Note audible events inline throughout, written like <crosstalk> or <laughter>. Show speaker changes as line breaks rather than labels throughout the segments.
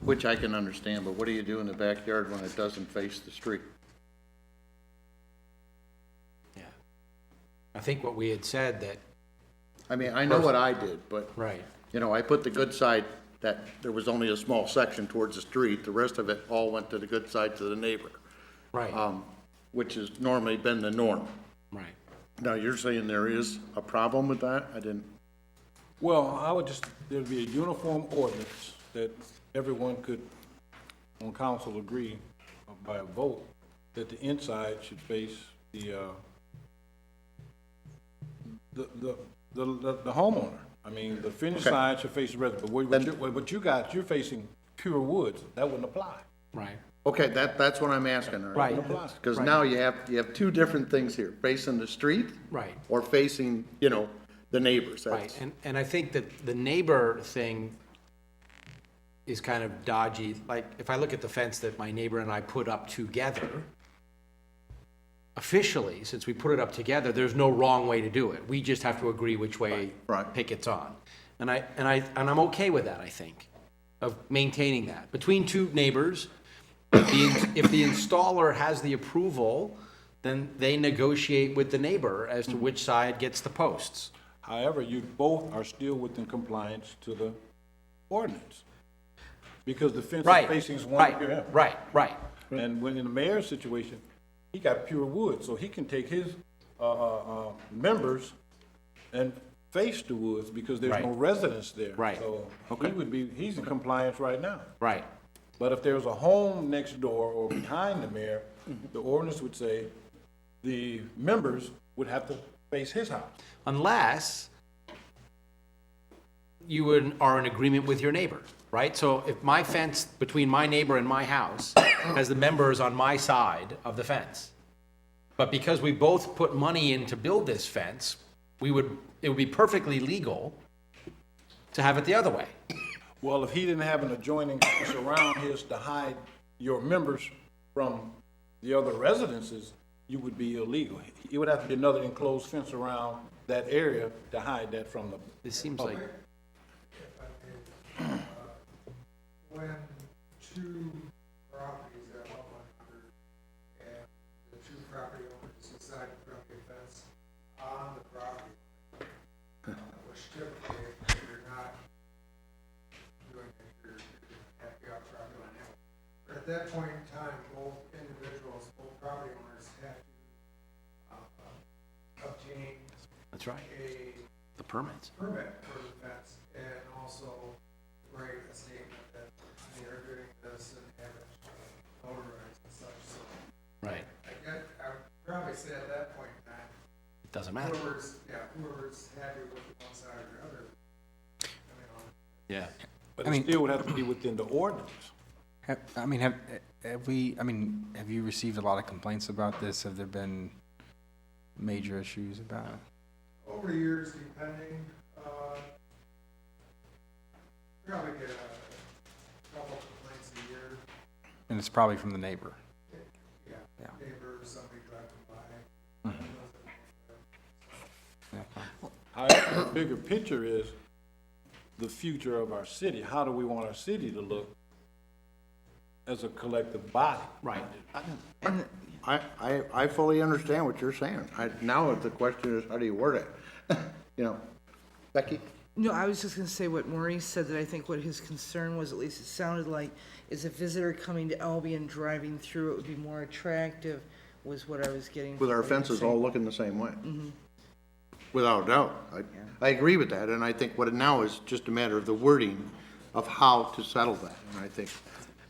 Which I can understand, but what do you do in the backyard when it doesn't face the street?
Yeah. I think what we had said that,
I mean, I know what I did, but,
right,
you know, I put the good side, that there was only a small section towards the street, the rest of it all went to the good side to the neighbor,
right,
um, which has normally been the norm.
right.
Now, you're saying there is a problem with that? I didn't,
Well, I would just, there'd be a uniform ordinance that everyone could, on council, agree by a vote that the inside should face the, uh, the, the, the the homeowner. I mean, the finished
Okay.
side should face the resident, but what- what you, what you got, you're facing pure woods, that wouldn't apply.
Right.
okay, that, that's what I'm asking, all right?
Right.
Because now you have, you have two different things here, facing the street.
Right.
Or facing, you know, the neighbors.
Right,
That's-
and, and I think that the neighbor thing is kind of dodgy. Like, if I look at the fence that my neighbor and I put up together, officially, since we put it up together, there's no wrong way to do it. We just have to agree which way
Right, right.
pickets on. And I, and I, and I'm okay with that, I think, of maintaining that. Between two neighbors, the- if the installer has the approval, then they negotiate with the neighbor as
Mm-hmm.
to which side gets the posts.
However, you both are still within compliance to the ordinance. Because the fence is
Right.
facing one. yeah.
Right, right, right.
And when in the mayor's situation, he got pure wood, so he can take his uh, uh, uh, members and face the woods because there's no
Right.
residence there.
Right.
So he would be, he's in compliance right now.
Right,
But if there was a home next door or behind the mayor,
Mm-hmm.
the ordinance would say the members would have to face his house.
unless you would- are in agreement with your neighbor, right? So if my fence between my neighbor and my
<coughs>
house has the members on my side of the fence, but because we both put money in to build this fence, we would, it would be perfectly legal to have it the other way.
Well, if he didn't have an adjoining fence around his to hide your members from the other residences, you would be illegal. It would have to be another enclosed fence around that area to hide that from the,
This seems like,
when two properties at one one hundred and the two property owners decide to build a fence on the property, line, which typically, if you're not doing it, you're, you're happy out property line. anyway. But at that point in time, both individuals, both property owners have to, uh, obtain
that's right,
a
the permits.
permit for the fence and also write a statement that they are doing this and have it notarized and such, so
Right,
I guess, I would probably say at that point in time,
it doesn't matter.
whoever's, yeah, whoever's happy with one side or the other, I mean, on
Yeah.
but it still would have to be within the ordinance.
Have, I mean, have, have we, I mean, have you received a lot of complaints about this? Have there been major issues about it?
over the years, depending, uh, probably get a couple complaints a year,
And it's probably from the neighbor.
yeah,
Yeah.
neighbor, somebody driving by. doesn't know if they're-
However, the bigger picture is the future of our city. How do we want our city to look as a collective body?
Right,
I, I, I fully understand what you're saying. I, now the question is, how do you word it? <laughs> You know, Becky?
No, I was just gonna say what Maurice said, that I think what his concern was, at least it sounded like, is a visitor coming to Albion, driving through, it would be more attractive, was what I was getting.
With our
from what you were
fences
saying.
all looking the same way. Without a doubt. I, I agree with that, and I think what it now is just a matter of the wording of how to settle that. And I think,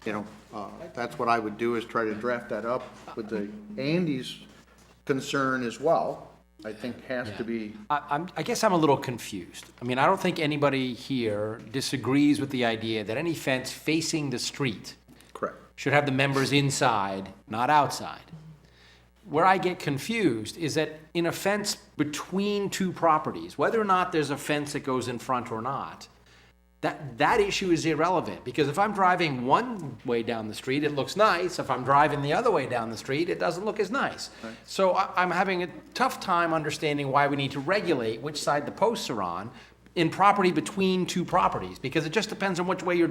you know, uh, that's what I would do, is try to draft that up with the, Andy's concern as well, I think has to be,
I, I'm, I guess I'm a little confused. I mean, I don't think anybody here disagrees with the idea that any fence facing the street
correct.
should have the members inside, not outside. Where I get confused is that in a fence between two properties, whether or not there's a fence that goes in front or not, that, that issue is irrelevant, because if I'm driving one way down the street, it looks nice. If I'm driving the other way down the street, it doesn't look as nice. So I, I'm having a tough time understanding why we need to regulate which side the posts are on in property between two properties, because it just depends on which way you're